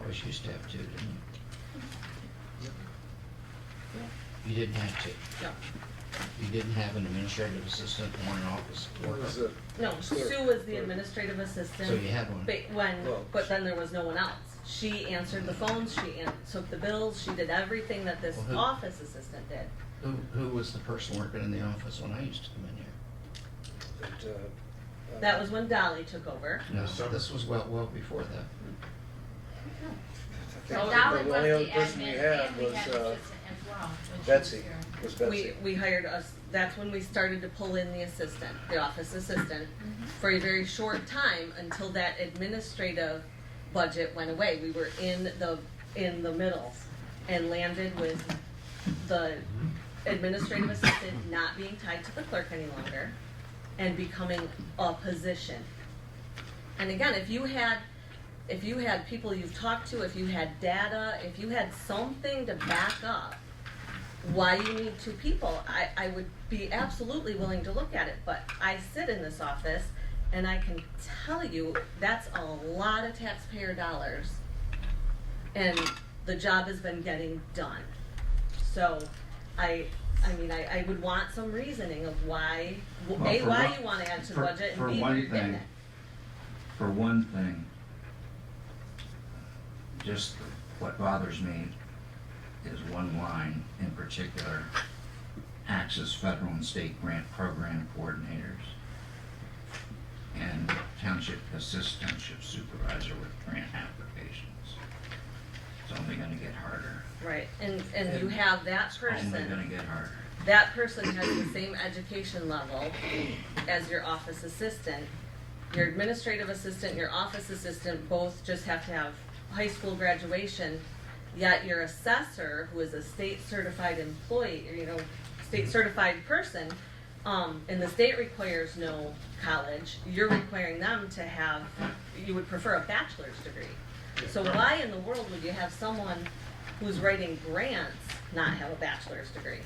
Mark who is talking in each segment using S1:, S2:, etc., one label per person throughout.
S1: always used to have to, didn't you? You didn't have to.
S2: No,
S1: You didn't have an administrative assistant or an office
S3: One is
S1: clerk.
S3: a,
S2: no,
S3: Clerk.
S2: Sue was the administrative assistant.
S1: So you had one.
S2: But when,
S3: Well,
S2: but then there was no one else. She answered the phones, she an- took the bills, she did everything that this
S1: Well, who-
S2: office assistant did.
S1: Who, who was the person working in the office when I used to come in here?
S3: that, uh.
S2: That was when Dolly took over.
S1: No,
S4: Summer.
S1: this was well, well before that.
S3: I
S5: So
S3: think
S5: Dolly
S3: the
S5: was
S3: only
S5: the
S3: other person we
S5: admin
S3: had
S5: and we
S3: was,
S5: had an
S3: uh,
S5: assistant as well. when she was
S3: Betsy,
S5: here.
S3: was
S2: We,
S3: Betsy.
S2: we hired us, that's when we started to pull in the assistant, the office assistant,
S3: Mm-hmm.
S2: for a very short time until that administrative budget went away. We were in the, in the middle and landed with the administrative assistant not being tied to the clerk any longer and becoming a position. And again, if you had, if you had people you've talked to, if you had data, if you had something to back up why you need two people, I, I would be absolutely willing to look at it, but I sit in this office and I can tell you that's a lot of taxpayer dollars. And the job has been getting done. So I, I mean, I, I would want some reasoning of why, w-
S6: Well,
S2: A,
S6: for
S2: why
S6: one-
S2: you wanna add to the
S6: for-
S2: budget
S6: for
S2: and B, where
S6: one
S2: you're getting
S6: thing,
S2: it.
S6: For one thing, just what bothers me is one line in particular, Access Federal and State Grant Program Coordinators and Township Assist Township Supervisor with grant applications. It's only gonna get harder,
S2: Right, and, and you have that
S6: only
S2: person,
S6: gonna get harder.
S2: that person has the same education level as your office assistant. Your administrative assistant, your office assistant both just have to have high school graduation, yet your assessor, who is a state certified employee, or you know, state certified person, um, and the state requires no college, you're requiring them to have, you would prefer a bachelor's degree. So why in the world would you have someone who's writing grants not have a bachelor's degree?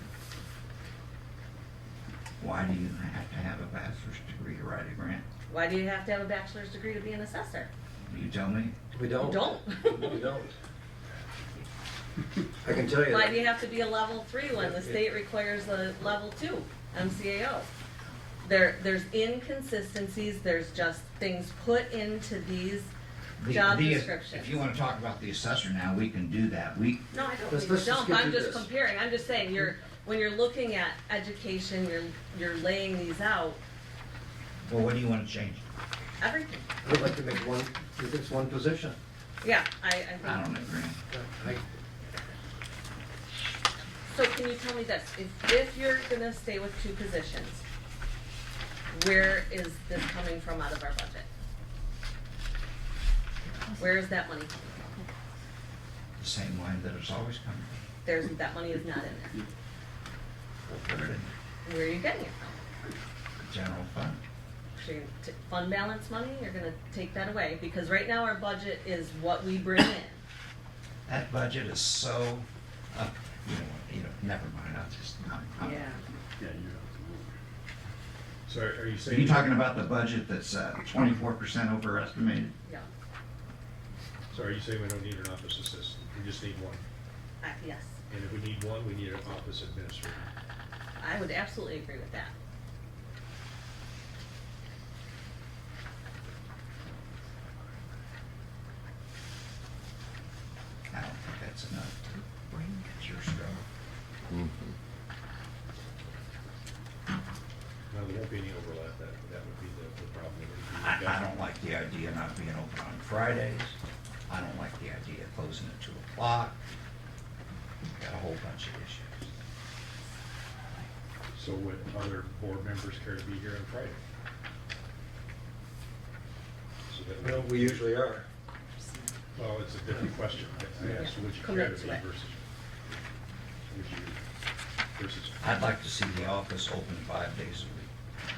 S6: Why do you have to have a bachelor's degree to write a grant?
S2: Why do you have to have a bachelor's degree to be an assessor?
S6: You tell me?
S3: We
S2: You
S3: don't.
S2: don't.
S3: We don't. I can tell you
S2: Why do
S3: that.
S2: you have to be a level three when the state requires a level two MCAO? There, there's inconsistencies, there's just things put into these
S6: The-
S2: job
S6: the-
S2: descriptions.
S6: If you wanna talk about the assessor now, we can do that. We,
S2: No, I don't
S3: Let's-
S2: think we
S3: let's just
S2: don't,
S3: get
S2: but I'm
S3: through
S2: just
S3: this.
S2: comparing, I'm just saying, you're, when you're looking at education, you're, you're laying these out,
S6: well, what do you wanna change?
S2: everything.
S3: I'd like to make one, if it's one position.
S2: Yeah, I, I
S6: I
S2: think,
S6: don't agree.
S3: I,
S2: so can you tell me this, if, if you're gonna stay with two positions, where is this coming from out of our budget? Where is that money coming from?
S6: The same line that it's always come from.
S2: There's, that money is not in
S6: Put it in
S2: there. Where are you getting it from?
S6: the general fund.
S2: So you're t- fund balance money, you're gonna take that away, because right now our budget is what we bring in.
S6: That budget is so, up you know, what, you know, never mind, I'll just, I'm, I'm.
S4: Yeah, you're out So are you
S6: So
S4: saying?
S6: you're talking about the budget that's, uh, twenty-four percent overestimated?
S2: Yeah,
S4: So are you saying we don't need an office assistant? We just need one?
S2: I, yes,
S4: And if we need one, we need an office administrator.
S2: I would absolutely agree with that.
S6: I don't think that's enough to bring it your struggle.
S4: Now, there won't be any overlap. That, that would be the, the problem. It would be-
S6: I, I don't like the idea of not being open on Fridays. I don't like the idea of closing at two o'clock. Got a whole bunch of issues.
S4: So would other board members care to be here on Friday? So that we-
S3: well, we usually are.
S4: Well, it's a different question. I- I asked, would you care to
S2: Commit to
S4: be
S2: it.
S4: versus, would you, versus,
S6: I'd like to see the office open five days a week.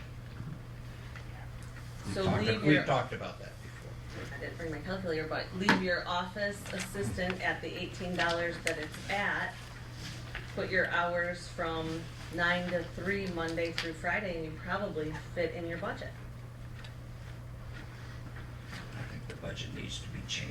S6: We've
S2: So
S6: talked-
S2: leave your-
S6: We've talked about that before.
S2: I didn't bring my calculator, but leave your office assistant at the eighteen dollars that it's at. Put your hours from nine to three, Monday through Friday, and you probably fit in your budget.
S6: I think the budget needs to be changed.